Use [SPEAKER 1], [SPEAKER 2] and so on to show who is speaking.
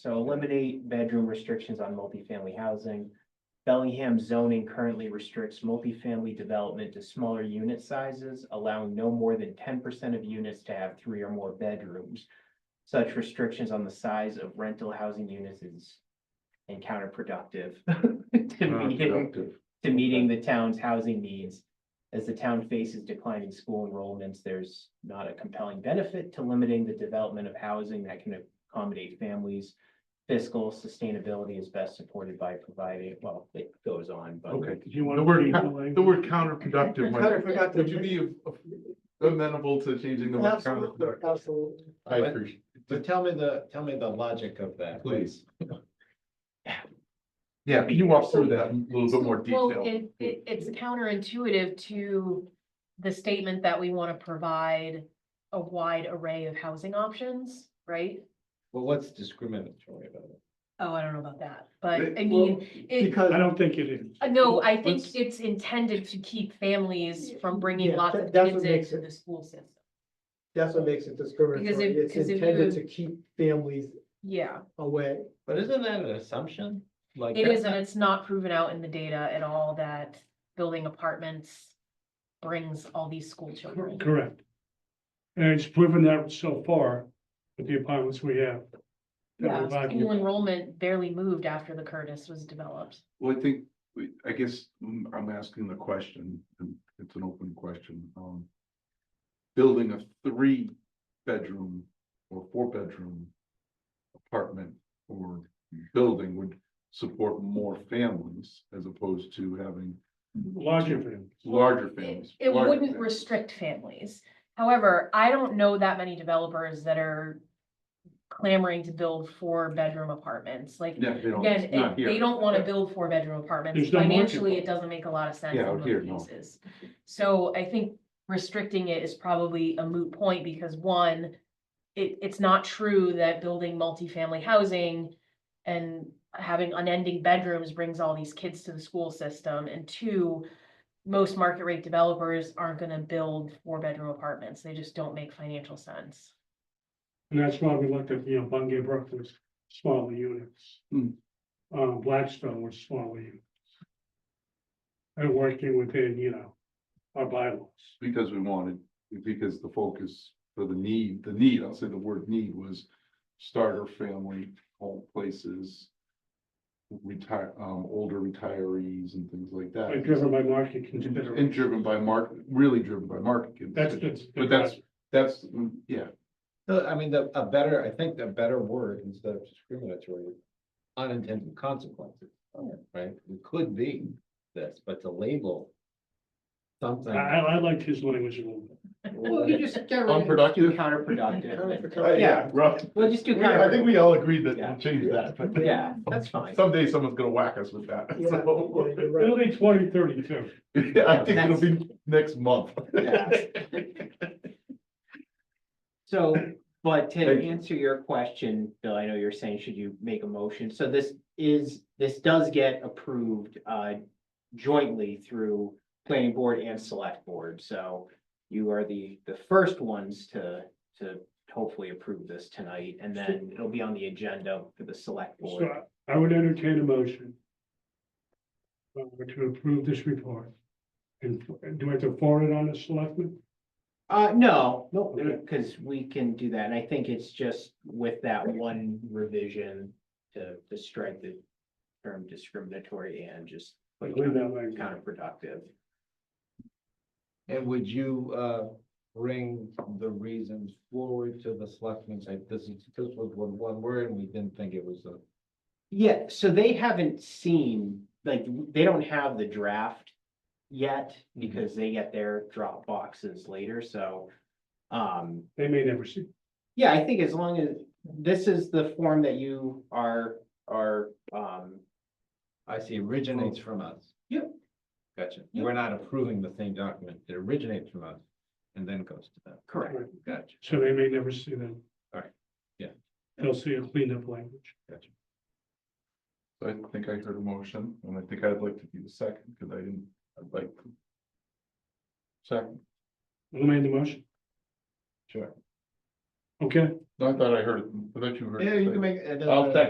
[SPEAKER 1] So eliminate bedroom restrictions on multifamily housing. Bellingham zoning currently restricts multifamily development to smaller unit sizes, allowing no more than ten percent of units to have three or more bedrooms. Such restrictions on the size of rental housing units is and counterproductive to
[SPEAKER 2] Hmm,
[SPEAKER 1] meeting,
[SPEAKER 2] Counterproductive.
[SPEAKER 1] to meeting the town's housing needs. As the town faces declining school enrollments, there's not a compelling benefit to limiting the development of housing that can accommodate families. Fiscal sustainability is best supported by providing, well, it goes on, but.
[SPEAKER 2] Okay.
[SPEAKER 3] Did you want
[SPEAKER 2] The
[SPEAKER 3] to
[SPEAKER 2] word-
[SPEAKER 3] read the language?
[SPEAKER 2] The word counterproductive,
[SPEAKER 4] Kind
[SPEAKER 2] might-
[SPEAKER 4] of forgot to.
[SPEAKER 2] would you be amenable to changing the word
[SPEAKER 4] Absolutely,
[SPEAKER 2] counterproductive?
[SPEAKER 4] absolutely.
[SPEAKER 2] I appreciate,
[SPEAKER 5] But tell me the, tell me the logic of that,
[SPEAKER 2] please. Yeah, can you walk through that in a little bit more
[SPEAKER 6] Well,
[SPEAKER 2] detail?
[SPEAKER 6] it, it, it's counterintuitive to the statement that we want to provide a wide array of housing options, right?
[SPEAKER 5] Well, what's discriminatory about it?
[SPEAKER 6] Oh, I don't know about that, but
[SPEAKER 2] It-
[SPEAKER 6] I mean, it,
[SPEAKER 4] Because.
[SPEAKER 3] I don't think it is.
[SPEAKER 6] uh, no, I think
[SPEAKER 3] Let's-
[SPEAKER 6] it's intended to keep families from bringing
[SPEAKER 4] Yeah,
[SPEAKER 6] lots
[SPEAKER 4] that-
[SPEAKER 6] of
[SPEAKER 4] that's what
[SPEAKER 6] kids
[SPEAKER 4] makes
[SPEAKER 6] into
[SPEAKER 4] it-
[SPEAKER 6] the school system.
[SPEAKER 4] That's what makes it discriminatory.
[SPEAKER 6] if-
[SPEAKER 4] It's
[SPEAKER 6] 'cause if
[SPEAKER 4] intended
[SPEAKER 6] you-
[SPEAKER 4] to keep families
[SPEAKER 6] Yeah,
[SPEAKER 4] away.
[SPEAKER 5] But isn't that an assumption? Like
[SPEAKER 6] it
[SPEAKER 5] that's
[SPEAKER 6] is, and it's not proven out in the data at all that building apartments brings all these school children.
[SPEAKER 3] Correct. And it's proven that so far with the apartments we have.
[SPEAKER 6] Yeah,
[SPEAKER 3] That we've
[SPEAKER 6] school
[SPEAKER 3] argued.
[SPEAKER 6] enrollment barely moved after the Curtis was developed.
[SPEAKER 2] Well, I think, we- I guess mm, I'm asking the question, and it's an open question, um. Building a three-bedroom or four-bedroom apartment or building would support more families as opposed to having
[SPEAKER 3] Larger for them.
[SPEAKER 2] larger
[SPEAKER 6] It
[SPEAKER 2] families.
[SPEAKER 6] it
[SPEAKER 2] larger
[SPEAKER 6] wouldn't
[SPEAKER 2] families.
[SPEAKER 6] restrict families. However, I don't know that many developers that are clamoring to build four-bedroom apartments. Like,
[SPEAKER 2] Yeah, they don't,
[SPEAKER 6] again,
[SPEAKER 2] it's not
[SPEAKER 6] it- they
[SPEAKER 2] here.
[SPEAKER 6] don't want to
[SPEAKER 2] Yeah.
[SPEAKER 6] build four-bedroom apartments.
[SPEAKER 3] There's no market
[SPEAKER 6] Financially,
[SPEAKER 3] for
[SPEAKER 6] it
[SPEAKER 3] it.
[SPEAKER 6] doesn't make a lot of sense
[SPEAKER 2] Yeah,
[SPEAKER 6] in
[SPEAKER 2] out here,
[SPEAKER 6] most
[SPEAKER 2] no.
[SPEAKER 6] cases. So I think restricting it is probably a moot point because one, it, it's not true that building multifamily housing and having unending bedrooms brings all these kids to the school system. And two, most market rate developers aren't gonna build four-bedroom apartments. They just don't make financial sense.
[SPEAKER 3] And that's why we looked at, you know, Bungay Brook was smaller units.
[SPEAKER 2] Hmm.
[SPEAKER 3] Um, Blackstone was smaller units. And working within, you know, our bylaws.
[SPEAKER 2] Because we wanted, because the focus for the need, the need, I'll say the word need was starter family, home places. Retire, um, older retirees and things like that.
[SPEAKER 3] Like driven by market
[SPEAKER 2] And
[SPEAKER 3] considerations.
[SPEAKER 2] driven by market, really driven by market.
[SPEAKER 3] That's,
[SPEAKER 2] conditions.
[SPEAKER 3] that's.
[SPEAKER 2] But that's, that's, mm, yeah,
[SPEAKER 5] No, I mean, the, a better, I think the better word instead of discriminatory, is unintended consequences, right? It could be this, but to label
[SPEAKER 3] I,
[SPEAKER 5] something.
[SPEAKER 3] I I liked his language a little bit.
[SPEAKER 4] Well, you just.
[SPEAKER 2] unproductive.
[SPEAKER 1] Counterproductive.
[SPEAKER 2] Uh, Yeah, rough.
[SPEAKER 1] We'll just do
[SPEAKER 2] I think
[SPEAKER 1] counterproductive.
[SPEAKER 2] we all agreed that
[SPEAKER 1] Yeah.
[SPEAKER 2] we'll change that, but
[SPEAKER 1] Yeah, that's fine.
[SPEAKER 2] someday someone's gonna whack us with that.
[SPEAKER 4] Yeah,
[SPEAKER 2] so-
[SPEAKER 4] yeah, you're right.
[SPEAKER 3] It'll be twenty thirty-two.
[SPEAKER 2] I think it'll be next month.
[SPEAKER 1] So, but to
[SPEAKER 2] Thank you.
[SPEAKER 1] answer your question, Bill, I know you're saying, should you make a motion? So this is, this does get approved uh jointly through planning board and select board, so you are the, the first ones to, to hopefully approve this tonight, and then it'll be on the agenda for the select
[SPEAKER 3] So
[SPEAKER 1] board.
[SPEAKER 3] uh, I- I would entertain a motion. uh, to approve this report. And and do I have to forward it on to selectmen?
[SPEAKER 1] Uh, no, no, because we can do that, and I think it's just with that one revision to, to strike the term discriminatory and just put
[SPEAKER 3] Leave that language.
[SPEAKER 1] counterproductive.
[SPEAKER 5] And would you, uh, bring the reasons forward to the selectmen, say, this is, this was one, one word, and we didn't think it was a.
[SPEAKER 1] Yeah, so they haven't seen, like, they don't have the draft yet, because they get their drop boxes later, so. Um,
[SPEAKER 3] They may never see.
[SPEAKER 1] yeah, I think as long as, this is the form that you are, are, um,
[SPEAKER 5] I see originates from us.
[SPEAKER 1] Yep.
[SPEAKER 5] Gotcha.
[SPEAKER 1] Yep.
[SPEAKER 5] We're not approving the same document. It originates from us and then goes to them.
[SPEAKER 1] correct.
[SPEAKER 5] Gotcha.
[SPEAKER 3] So they may never see them.
[SPEAKER 5] Alright, yeah.
[SPEAKER 3] They'll see a cleaned up language.
[SPEAKER 2] I think I heard a motion, and I think I'd like to be the second, because I didn't, I'd like. to- Second,
[SPEAKER 3] Who made the motion?
[SPEAKER 5] Sure.
[SPEAKER 3] Okay.
[SPEAKER 2] No, I thought I heard, it. I thought you heard. it.
[SPEAKER 5] Yeah, you can make. it doesn't
[SPEAKER 2] I'll
[SPEAKER 3] uh,
[SPEAKER 5] matter.
[SPEAKER 2] second.